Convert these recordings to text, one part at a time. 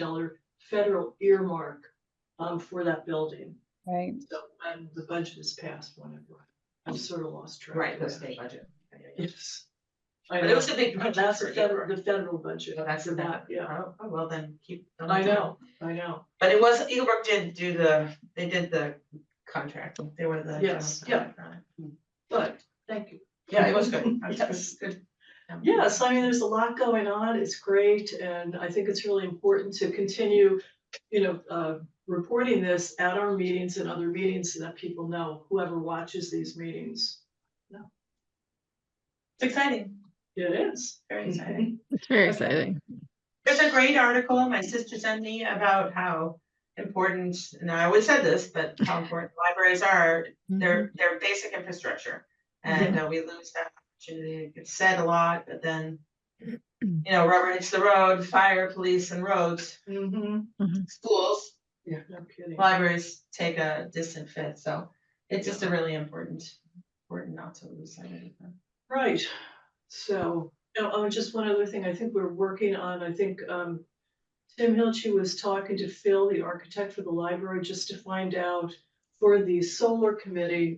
dollar federal earmark um for that building. Right, So and the budget is passed whenever. I've sort of lost track. Right, of the that. state budget. Yeah, yeah, yeah. Yes. I But know. it was a big But budget. That's for the federal, Deborah. the federal budget. So that's for that, that, yeah. oh, oh, well, then keep. going I down. know, I know. But it was, Eaglebrook did do the, they did the contract, they were the. general Yes, yeah. contractor. But thank you. Yeah, it was good. That was good. Yes. Good. Um, Yes, I mean, there's a lot going on. It's great. And I think it's really important to continue, you know, uh, reporting this at our meetings and other meetings so that people know, whoever watches these meetings, It's exciting, it is. very exciting. it's very Okay. exciting. There's a great article my sister sent me about how important, and I always said this, but how important libraries are Mm-hmm. their, Mm-hmm. their basic infrastructure. And uh, we lose that opportunity, it's said a lot, but then, you know, rubber hits the road, fire, police and roads, Mm-hmm. schools, Yeah, no kidding. libraries take a distant fifth, so it's just a really important, important not to lose sight of it. Right, so, oh, oh, just one other thing, I think we're working on, I think, um. Tim Hilchi was talking to Phil, the architect for the library, just to find out for the solar committee.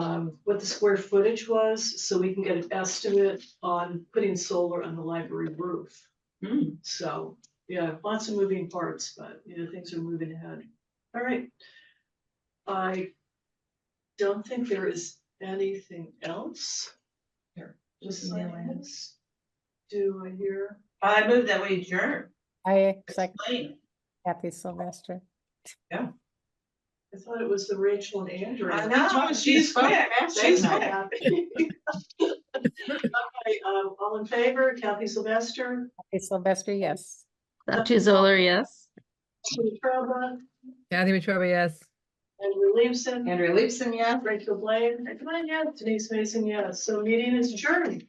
Um, what the square footage was, so we can get an estimate on putting solar on the library roof. Mm. Hmm, So, yeah, lots of moving parts, but, you know, things are moving ahead. All right. I don't think there is anything else. Here, Just email it. silence. Do I hear? I move that we adjourn, I It's second late. Kathy Sylvester. I thought it was the Rachel and Andrew. I know, she's fine. quick, she's quick. uh, All in favor, Kathy Sylvester, Kathy Sylvester, yes. Dr. Zoller, yes. Julie Trova, Kathy Wetruba, yes. Andrew Leibson, Andrea Leibson, yes. Rachel Blaine, Denise Mason, yes. So meeting is adjourned.